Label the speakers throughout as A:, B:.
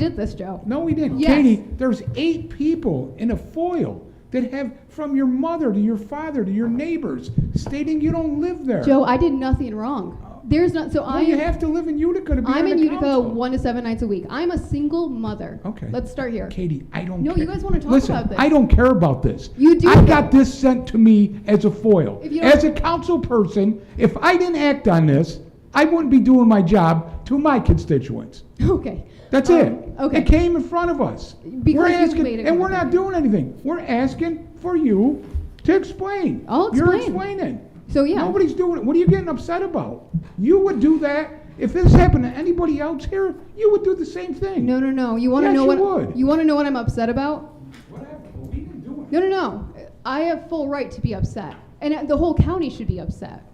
A: did this, Joe.
B: No, we didn't.
A: Yes.
B: Katie, there's eight people in a foil that have, from your mother to your father to your neighbors, stating you don't live there.
A: Joe, I did nothing wrong. There's not, so
B: Well,
A: I
B: you
A: am,
B: have to live in Utica to be
A: I'm
B: on
A: in
B: the
A: Utica
B: council.
A: one to seven nights a week. I'm a single mother.
B: Okay.
A: Let's start here.
B: Katie, I don't.
A: No,
B: care.
A: you guys wanna talk
B: Listen,
A: about this.
B: I don't care about this.
A: You do
B: I
A: care.
B: got this sent to me as a foil.
A: If you don't-
B: As a council person, if I didn't act on this, I wouldn't be doing my job to my constituents.
A: Okay.
B: That's
A: Um,
B: it.
A: Okay.
B: It came in front of us.
A: Because
B: we're
A: you
B: asking,
A: made a
B: and we're
A: comment.
B: not doing anything. We're asking for you to explain.
A: I'll
B: You're
A: explain.
B: explaining.
A: So, yeah.
B: Nobody's doing it. What are you getting upset about? You would do that if this happened to anybody else here. You would do the same thing.
A: No, no, no. You want to
B: Yes,
A: know
B: you
A: what
B: would.
A: you want to know what I'm upset about?
B: Whatever. We didn't do it.
A: No, no, no. I have full right to be upset, and the whole county should be upset.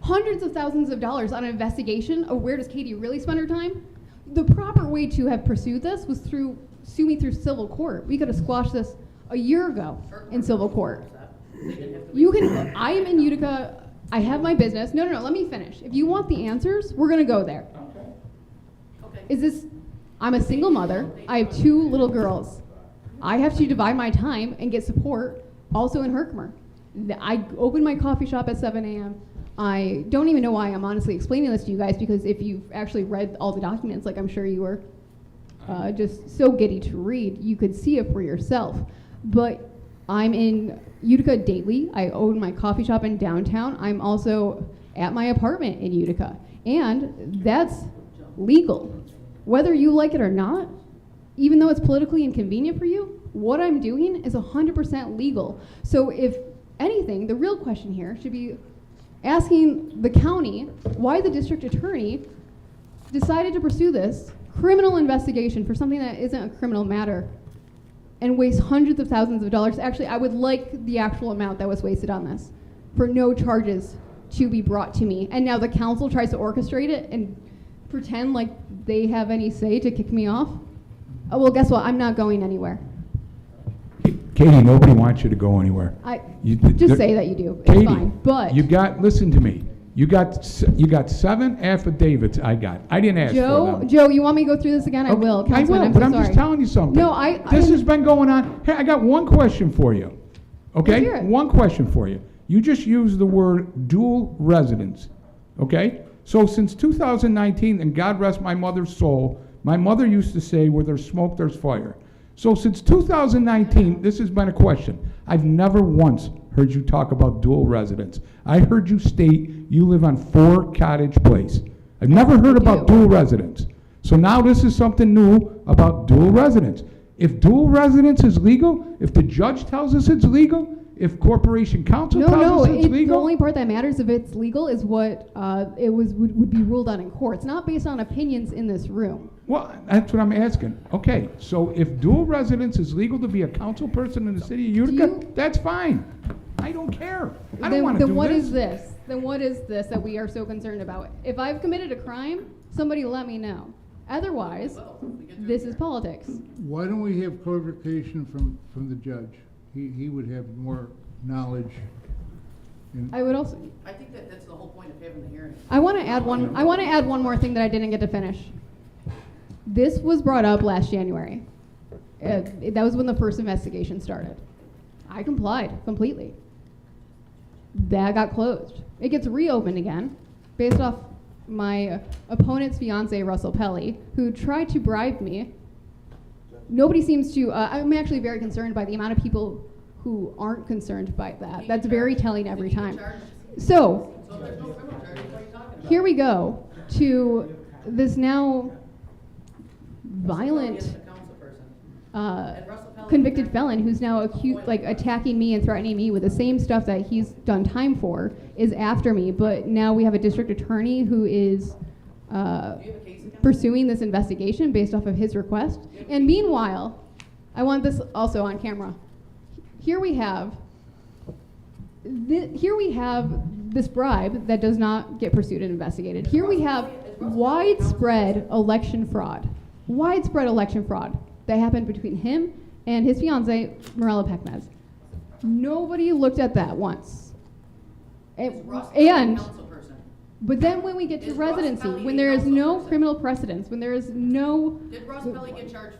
A: Hundreds of thousands of dollars on an investigation of where does Katie really spend her time? The proper way to have pursued this was through sue me through civil court. We could have squashed this a year ago in civil court. You can. I am in Utica. I have my business. No, no, no. Let me finish. If you want the answers, we're gonna go there. Is this? I'm a single mother. I have two little girls. I have to divide my time and get support also in Herkimer. Th- I open my coffee shop at 7 a.m. I don't even know why I'm honestly explaining this to you guys because if you've actually read all the documents, like I'm sure you were, uh, just so giddy to read, you could see it for yourself. But I'm in Utica daily. I own my coffee shop in downtown. I'm also at my apartment in Utica. And that's legal. Whether you like it or not, even though it's politically inconvenient for you, what I'm doing is 100% legal. So, if anything, the real question here should be asking the county why the district attorney decided to pursue this criminal investigation for something that isn't a criminal matter and waste hundreds of thousands of dollars. Actually, I would like the actual amount that was wasted on this for no charges to be brought to me. And now the council tries to orchestrate it and pretend like they have any say to kick me off. Oh, well, guess what? I'm not going anywhere.
B: Katie, nobody wants you to go anywhere.
A: I
B: You-
A: just
B: there-
A: say that you do. It's
B: Katie,
A: fine. But
B: you got. Listen to me. You got. s- You got seven affidavits. I got. I didn't ask for
A: Joe,
B: them.
A: Joe, you want me to go through this again? I
B: Okay,
A: will, Councilman.
B: I
A: I'm
B: will,
A: so
B: but I'm
A: sorry.
B: just telling you something.
A: No, I- I
B: This
A: didn't-
B: has been going on. Here, I got one question for you.
A: Let's
B: Okay?
A: hear it.
B: One question for you. You just used the word dual residence. Okay? So since 2019, and God rest my mother's soul, my mother used to say, where there's smoke, there's fire. So since 2019, this has been a question. I've never once heard you talk about dual residence. I heard you state you live on Four Cottage Place. I've never heard about
A: do.
B: dual residence. So now this is something new about dual residence. If dual residence is legal, if the judge tells us it's legal, if corporation counsel
A: No,
B: tells
A: no,
B: us it's
A: it, the
B: legal.
A: only part that matters if it's legal is what uh, it was would, would be ruled on in court. It's not based on opinions in this room.
B: well, that's what I'm asking. Okay, so if dual residence is legal to be a council person in the city of Utica,
A: you-
B: that's fine. I don't care. I don't
A: then
B: want to
A: then
B: do
A: what
B: this.
A: is this? Then what is this that we are so concerned about? If I've committed a crime, somebody let me know. Otherwise, this is politics.
C: Why don't we have clarification from, from the judge? He, he would have more knowledge. And
A: I would also
D: I think that that's the whole point of having the hearing.
A: I want to add one. I want to add one more thing that I didn't get to finish. This was brought up last January. Uh, that was when the first investigation started. I complied completely. That got closed. It gets reopened again, based off my opponent's fiance Russell Pelly, who tried to bribe me nobody seems to. Uh, I'm actually very concerned by the amount of people who aren't concerned by that. That's very telling every time. So, here we go to this now
D: It's
A: violent
D: the council person.
A: uh,
D: And Russell Pelley-
A: convicted felon who's now accused, like attacking me and threatening me with the same stuff that he's done time for is after me. But now we have a district attorney who is. Uh,
D: Do you have a case against? him?
A: pursuing this investigation based off of his request. And meanwhile, I want this also on camera. Here we have, thi- here we have this bribe that does not get pursued and investigated. Here we have widespread election fraud, widespread election fraud that happened between him and his fiancee, Morella Pecmez. Nobody looked at that once.
D: Is
A: And-
D: Russ Pelley a
A: and
D: council person?
A: but then when we get to
D: Is Ross
A: residency,
D: Pelley
A: when
D: a
A: there is
D: council
A: no
D: person?
A: criminal precedence, when there is no
D: Did Ross Pelley get charged